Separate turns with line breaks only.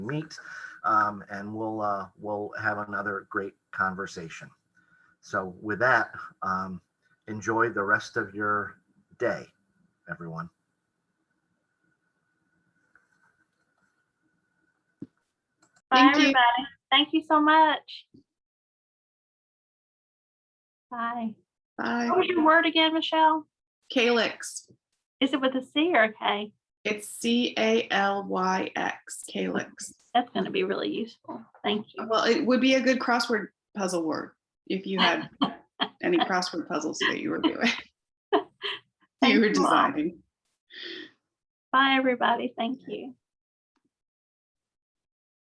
meet, um, and we'll, uh, we'll have another great conversation. So with that, um, enjoy the rest of your day, everyone.
Bye,
Thank you.
everybody. Thank you so much. Bye. What
Bye.
was your word again, Michelle?
Calyx.
Is it with a C or a K?
It's C A L Y X, calyx.
That's going to be really useful. Thank you.
Well, it would be a good crossword puzzle word if you had any crossword puzzles that you were doing.
Thank
You were
you all.
designing.
Bye, everybody. Thank you.